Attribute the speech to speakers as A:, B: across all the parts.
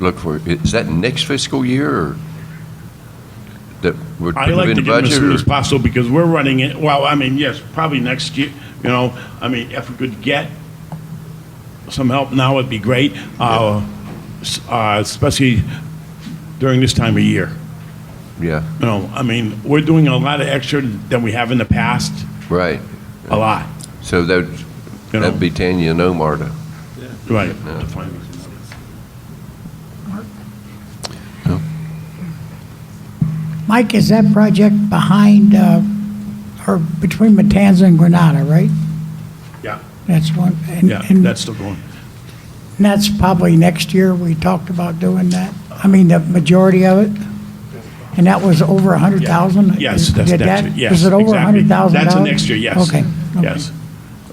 A: look for, is that next fiscal year or that we're
B: I like
A: in the
B: to get them as
A: budget?
B: soon as
A: or-
B: possible because we're running it, well, I mean, yes, probably next year, you know, I mean, if we could get some help now, it'd be great, uh, s- uh, especially during this time of year.
A: Yeah,
B: You know, I mean, we're doing a lot of extra than we have in the past,
A: right.
B: a lot,
A: So that,
B: You know.
A: that'd be Tanya and Omar to,
B: right?
C: Mike, is that project behind, uh, or between Matanza and Granada, right?
B: Yeah,
C: That's one, and,
B: yeah,
C: and
B: that's still going.
C: that's probably next year, we talked about doing that. I mean, the majority of it. And that was over a hundred thousand?
B: Yes, that's
C: Did
B: next
C: that-
B: year, yes.
C: Was it over a
B: exactly.
C: hundred thousand dollars?
B: That's the next year, yes.
C: Okay. okay.
B: Yes.
C: I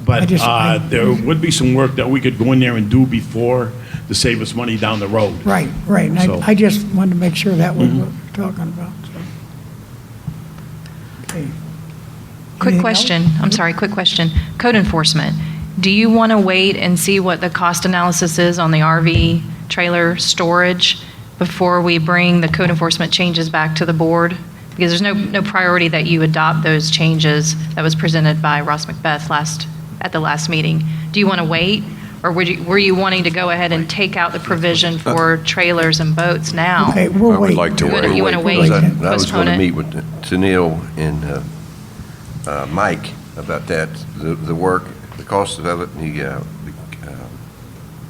B: But
C: just-
B: uh, there would be some work that we could go in there and do before to save us money down the road.
C: Right, right. And
B: So- Mm-hmm.
C: I, I just wanted to make sure that was what we're talking about. Okay. Anything
D: Quick
C: else?
D: question, I'm sorry, quick question. Code enforcement, do you want to wait and see what the cost analysis is on the RV trailer storage before we bring the code enforcement changes back to the board? Because there's no, no priority that you adopt those changes that was presented by Ross Macbeth last, at the last meeting. Do you want to wait? Or were you, were you wanting to go ahead and take out the provision for trailers and boats now?
C: Okay,
A: I
C: we'll wait.
A: would like to
D: You wanna-
A: wait.
D: you wanna
A: because
D: wait and
A: I I was going
D: postpone
A: to
D: it?
A: meet with Tanil and uh, uh, Mike about that, the, the work, the cost of it, and the, uh, the, um,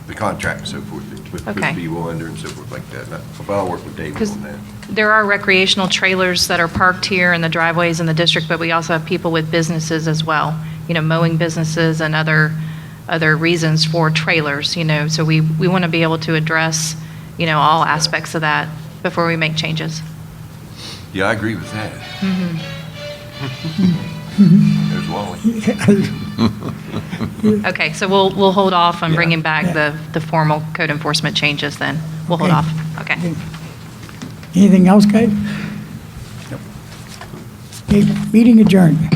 A: the contract and so forth, that would-
D: Okay.
A: would be under and so forth like that. And I- But I'll work with David
D: 'Cause-
A: on that.
D: There are recreational trailers that are parked here in the driveways in the district, but we also have people with businesses as well, you know, mowing businesses and other, other reasons for trailers, you know, so we, we want to be able to address, you know, all aspects of that before we make changes.
A: Yeah, I agree with that.
D: Mm-hmm.
A: There's Wally.
D: Okay, so we'll, we'll hold off on
A: Yeah.
D: bringing back the, the formal code enforcement changes then. We'll hold
C: Okay.
D: off, okay.
C: Anything else, guys? Okay, meeting adjourned.